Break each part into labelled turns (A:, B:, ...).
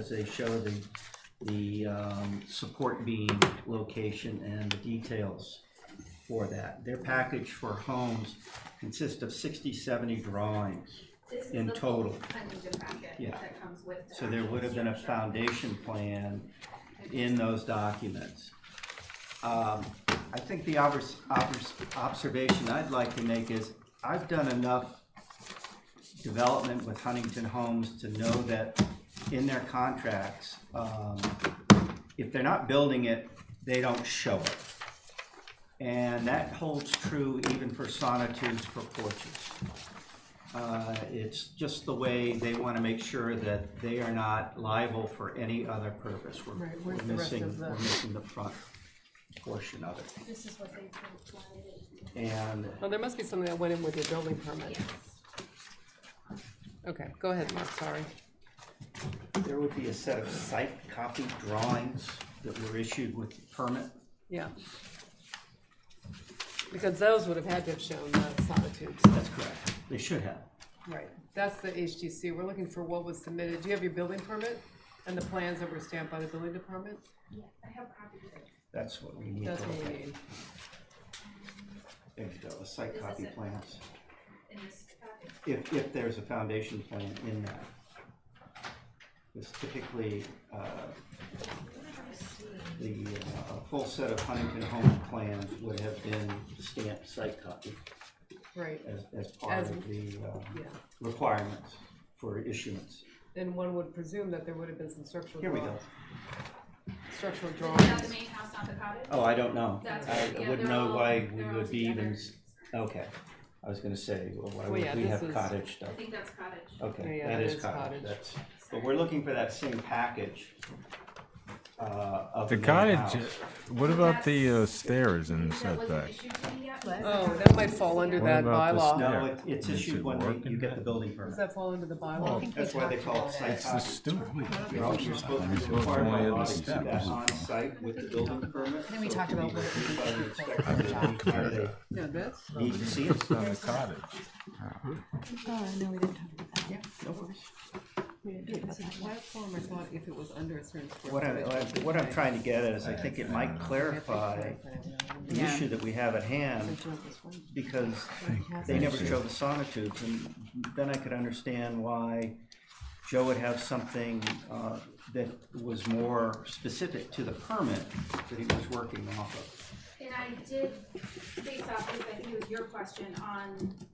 A: as they show the, the um, support beam location and the details for that. Their package for homes consists of 60, 70 drawings.
B: This is
A: in
B: the
A: total.
B: Huntington packet
A: Yeah.
B: that comes with the
A: So there would have been a foundation plan in those documents. Um, I think the obvers- obvers- observation I'd like to make is, I've done enough development with Huntington Homes to know that in their contracts, um, if they're not building it, they don't show it. And that holds true even for sonitudes for porches. Uh, It's just the way they want to make sure that they are not liable for any other purpose. We're-
C: Right,
A: We're
C: where's the rest
A: missing,
C: of the-
A: we're missing the front portion of it.
B: This is what they provided.
A: And
C: Well, Oh, there must be something that went in with your building permit.
B: Yes.
C: Okay, go ahead, Mark, sorry.
A: there would be a set of site copy drawings that were issued with the permit.
C: Yeah. Because those would have had to have shown the solitudes.
A: That's correct. They should have.
C: Right. That's the HGC. We're looking for what was submitted. Do you have your building permit and the plans that were stamped by the building department?
B: Yeah, I have copies of it.
A: That's what we need to
C: That's what
A: look
C: we
A: at.
C: need.
A: There you go, the site
B: This is
A: copy
B: it.
A: plans.
B: in this packet.
A: If, if there's a foundation plan in that. It's typically, uh, the, uh, a full set of Huntington Home plans would have been stamped site copy
C: Right,
A: as, as part
C: As-
A: of the, uh,
C: yeah.
A: requirements for issuance.
C: Then one would presume that there would have been some structural.
A: Here we
C: draw-
A: go.
C: Structural
B: Is that the
C: drawings.
B: main house, not the cottage?
A: Oh, I don't know.
B: That's
A: I
B: right,
A: I
B: yeah,
A: wouldn't
B: they're
A: know
B: all-
A: why we
B: they're all
A: would be even,
B: together.
A: s- okay. I was gonna say, well, why
C: Well,
A: would
C: yeah,
A: we
C: this
A: have
C: is-
A: cottage stuff?
B: I think that's cottage.
A: Okay,
C: Yeah,
A: that
C: it
A: is
C: is
A: cottage,
C: cottage.
A: that's, but Oh, we're looking for that same package, uh, of the
D: The
A: main
D: cottage.
A: house.
D: What about the uh, stairs and
B: That wasn't
D: setback?
B: issued to me yet.
C: Oh, that might fall under
D: What
C: that
D: about this
C: bylaw.
D: now?
A: No,
D: Yeah.
A: it- it's
D: Is
A: issued
D: it
A: when they-
D: working?
A: you get the building
C: Does
A: permit.
C: that fall under the
E: I
C: bylaw?
E: think
A: That's why they call it site
D: It's the
A: cottage.
D: stupid.
A: You're also supposed to be required by law to do that on site with the building permit.
E: Then we
A: so it
E: talked
A: can be
E: about what it
A: reviewed
E: would
A: by
E: be
A: the
E: for the
A: inspector
E: job.
A: anytime they
C: No, this?
A: Need to see it.
D: on the cottage.
E: Oh, no, we didn't talk about that.
C: It's a platform, I thought if it was under a certain. square
A: What I'm,
C: footage,
A: what I'm- what I'm trying to get at is I think it might clarify the
E: Yeah.
A: issue that we have at hand because they never show the sonotubes, and then I could understand why Joe would have something uh, that was more specific to the permit that he was working off of.
B: And I did, based off, of, I think it was your question on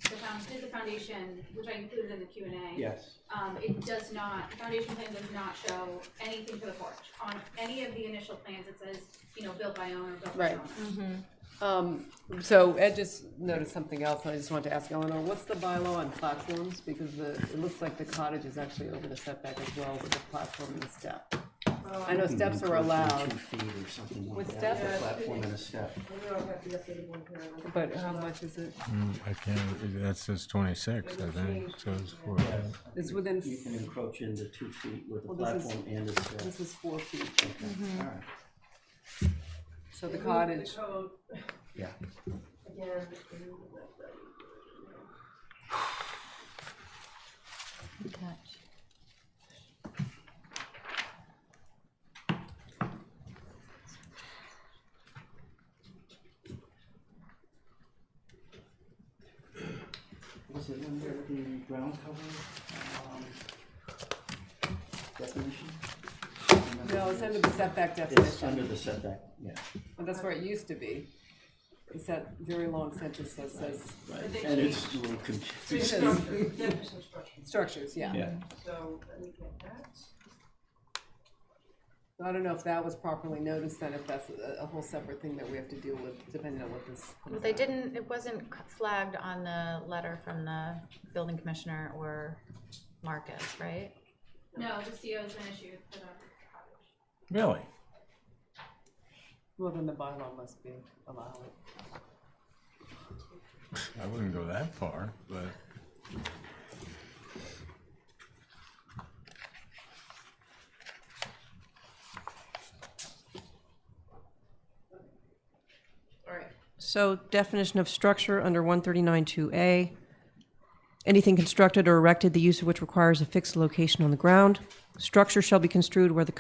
B: the found, did the foundation, which I included in the Q and A.
A: Yes.
B: Um, it does not, the foundation plan does not show anything for the porch. On any of the initial plans, it says, you know, built by owner, built by
C: Right.
B: owner.
C: Um, so Ed just noticed something else, and I just wanted to ask Eleanor, what's the bylaw on platforms? Because the, it looks like the cottage is actually over the setback as well with the platform and the step. I know steps are allowed,
A: Two feet or something like
C: With
A: that,
C: steps?
A: with a platform and a step.
C: but uh, how much is it?
D: Mm, I can't. That says 26, I think. So it's four.
C: It's within,
A: You can encroach into two feet with a
C: Well, this is-
A: platform and a step.
C: this is Mhm. four feet,
A: All right.
C: so the cottage,
F: uh,
A: Yeah.
E: Detached.
A: Was it under the ground cover um, definition?
C: no, it's under the setback
A: It's
C: definition,
A: under the setback, yeah.
C: and that's where it used to be. It's that very long sentence that says,
A: And it's a little confusing.
C: structures, yeah.
A: Yeah.
F: So let me get that.
C: I don't know if that was properly noticed, then if that's a, a whole separate thing that we have to deal with, depending on what this. comes
G: Well, They
C: out.
G: didn't, it wasn't c- flagged on the letter from the building commissioner or Marcus, right?
B: No, the CO's been issued for the
D: Really?
C: Well, then the bylaw must be allowed.
D: I wouldn't go that far, but
F: All right,
H: So definition of structure under one thirty-nine two A. Anything constructed or erected, the use of which requires a fixed location on the ground. Structure shall be construed where the